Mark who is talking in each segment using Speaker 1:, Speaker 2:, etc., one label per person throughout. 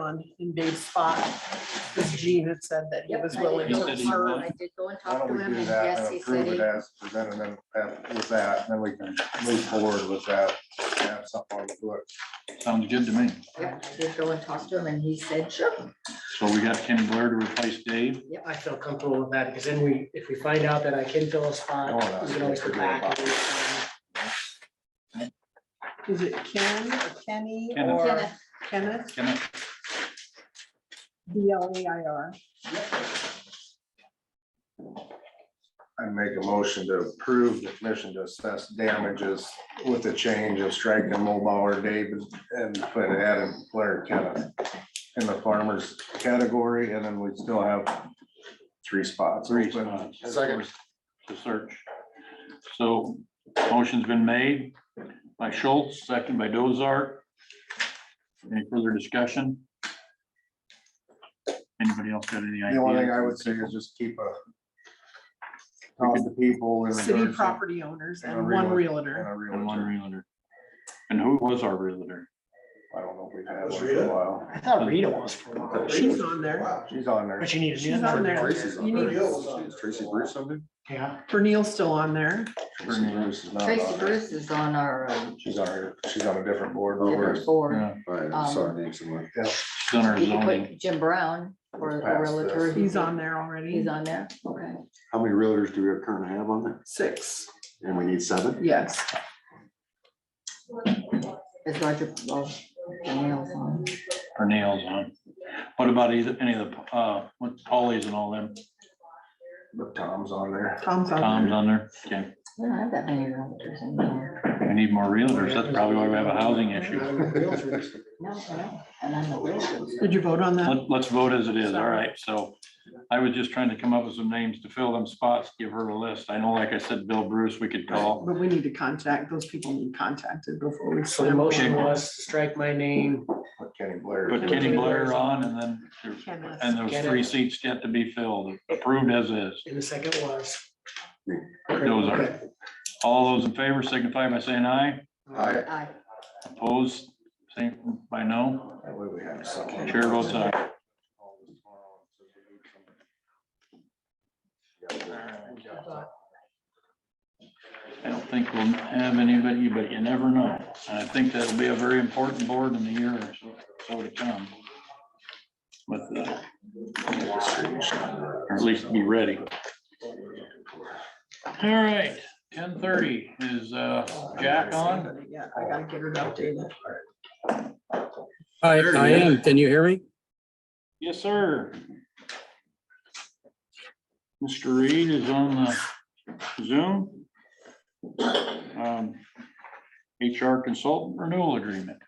Speaker 1: on in Dave's spot, because Gene had said that he
Speaker 2: Yep,
Speaker 1: was
Speaker 2: I did
Speaker 1: willing
Speaker 2: go
Speaker 1: to
Speaker 2: and
Speaker 3: He said he
Speaker 2: talk-
Speaker 3: would.
Speaker 1: serve.
Speaker 2: I did go and
Speaker 4: Why
Speaker 2: talk
Speaker 4: don't
Speaker 2: to
Speaker 4: we
Speaker 2: him,
Speaker 4: do
Speaker 2: and
Speaker 4: that
Speaker 2: yes,
Speaker 4: and
Speaker 2: he
Speaker 4: approve
Speaker 2: said
Speaker 4: it
Speaker 2: he,
Speaker 4: as presented and then with that, and then we can move forward with that, have something on the books.
Speaker 3: Sounds good to me.
Speaker 2: yep, I did go and talk to him, and he said, sure.
Speaker 3: So we got Ken Blair to replace Dave.
Speaker 5: I feel comfortable with that, because then we, if we find out that I can fill a
Speaker 4: Oh,
Speaker 5: spot,
Speaker 4: no,
Speaker 5: we can always
Speaker 4: forget
Speaker 5: come back.
Speaker 4: about
Speaker 5: and reassign.
Speaker 1: Is it Ken or Kenny
Speaker 3: Kenneth.
Speaker 1: or Kenneth,
Speaker 2: Kenneth,
Speaker 3: Kenneth,
Speaker 1: B L A I R?
Speaker 4: I make a motion to approve the commission to assess damages with the change of striking Mulbauer, David, and put Adam Blair Kenneth in the farmer's category, and then we still have three spots.
Speaker 3: three spots.
Speaker 4: Second.
Speaker 3: To search. So motion's been made by Schultz, second by Dozart. Any further discussion? Anybody else got any ideas?
Speaker 4: The only thing I would say is just keep a talk to people in
Speaker 1: City
Speaker 4: regards to
Speaker 1: property owners
Speaker 4: and a
Speaker 1: and one
Speaker 4: realtor.
Speaker 1: realtor.
Speaker 4: and a
Speaker 3: And one
Speaker 4: realtor.
Speaker 3: realtor. And who was our realtor?
Speaker 4: I don't know if we've had
Speaker 6: Was
Speaker 4: one for a
Speaker 6: Rita?
Speaker 4: while.
Speaker 5: I thought Rita was for a while,
Speaker 1: She's on there.
Speaker 4: She's on there.
Speaker 5: but you need a
Speaker 1: She's
Speaker 5: new
Speaker 1: on
Speaker 5: number.
Speaker 1: there.
Speaker 6: Tracy's on
Speaker 1: You
Speaker 6: there.
Speaker 1: need-
Speaker 6: Is Tracy Bruce
Speaker 4: on there?
Speaker 5: Yeah,
Speaker 1: Bernil's still on there.
Speaker 4: Tracy Bruce is not
Speaker 2: Tracy
Speaker 4: on there.
Speaker 2: Bruce is on our um,
Speaker 4: She's on her, she's on a different board.
Speaker 2: different board.
Speaker 3: Yeah,
Speaker 6: Right, I saw her name somewhere.
Speaker 3: she's on our
Speaker 2: You can
Speaker 3: zoning.
Speaker 2: put Jim Brown for a
Speaker 4: Past this.
Speaker 2: realtor.
Speaker 1: He's on there
Speaker 2: He's
Speaker 1: already.
Speaker 2: on there, okay.
Speaker 6: How many realtors do we currently have on there?
Speaker 1: Six,
Speaker 6: And we need seven?
Speaker 1: yes.
Speaker 2: Is Roger, well, Daniel's on.
Speaker 3: her nails on. What about either, any of the, uh, what Polly's and all them,
Speaker 4: But Tom's on there.
Speaker 1: Tom's on
Speaker 3: Tom's
Speaker 1: there.
Speaker 3: on there? Okay,
Speaker 2: We don't have that many realtors in there.
Speaker 3: we need more realtors, that's probably why we have a housing issue.
Speaker 2: No, no, and I'm a realtor.
Speaker 1: Did you vote on that?
Speaker 3: Let, let's vote as it is, all right, so I was just trying to come up with some names to fill them spots, give her a list, I know, like I said, Bill Bruce, we could call.
Speaker 1: But we need to contact, those people need contacted before we.
Speaker 5: so the motion was to strike my name,
Speaker 4: Put Kenny Blair.
Speaker 3: Put Kenny Blair on, and then, there- and those three seats yet to be filled, approved as is,
Speaker 5: and the second was.
Speaker 3: those are. All those in favor signify by saying aye,
Speaker 6: Aye.
Speaker 2: Aye.
Speaker 3: opposed, same by no,
Speaker 4: That way we have someone.
Speaker 3: chair votes aye. I don't think we'll have anybody, but you never know. And I think that'll be a very important board in the year or so, so to come. But, uh, or at least be ready. All right, ten thirty is, uh, Jack on?
Speaker 1: Yeah, I gotta get her updated.
Speaker 7: I, I am. Can you hear me?
Speaker 3: Yes, sir. Mr. Reed is on the Zoom. Um, HR consultant renewal agreement.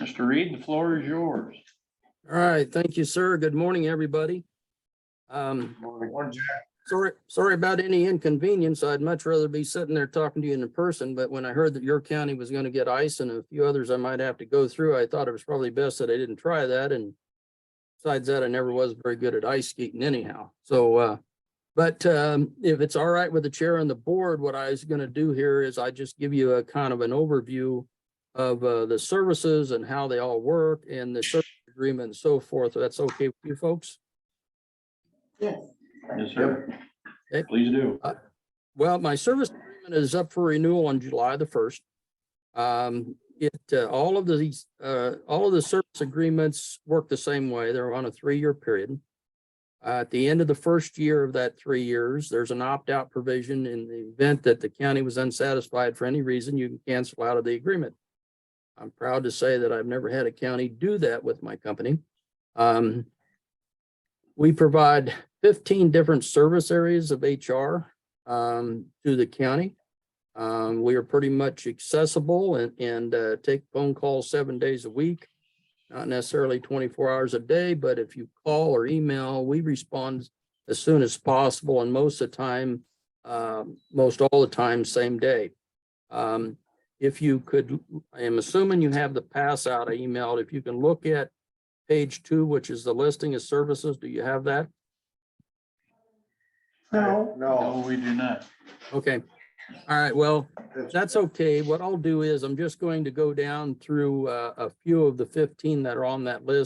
Speaker 3: Mr. Reed, the floor is yours.
Speaker 7: All right. Thank you, sir. Good morning, everybody. Um, sorry, sorry about any inconvenience. I'd much rather be sitting there talking to you in person, but when I heard that your county was going to get ice and a few others I might have to go through, I thought it was probably best that I didn't try that and besides that, I never was very good at ice skating anyhow. So, uh, but, um, if it's all right with the chair and the board, what I was going to do here is I just give you a kind of an overview of, uh, the services and how they all work and the service agreement and so forth. That's okay with you folks?
Speaker 2: Yes.
Speaker 3: Yes, sir.
Speaker 7: Okay.
Speaker 3: Please do.
Speaker 7: Well, my service agreement is up for renewal on July the first. Um, it, uh, all of these, uh, all of the service agreements work the same way. They're on a three-year period. Uh, at the end of the first year of that three years, there's an opt-out provision in the event that the county was unsatisfied for any reason, you can cancel out of the agreement. I'm proud to say that I've never had a county do that with my company. Um, we provide fifteen different service areas of HR um, to the county. Um, we are pretty much accessible and, and, uh, take phone calls seven days a week. Not necessarily twenty-four hours a day, but if you call or email, we respond as soon as possible and most of the time, um, most all the time, same day. Um, if you could, I am assuming you have the pass out I emailed. If you can look at page two, which is the listing of services, do you have that?
Speaker 1: No,
Speaker 3: No, we do not.
Speaker 7: Okay, all right, well, that's okay. What I'll do is I'm just going to go down through uh, a few of the fifteen that are on that list.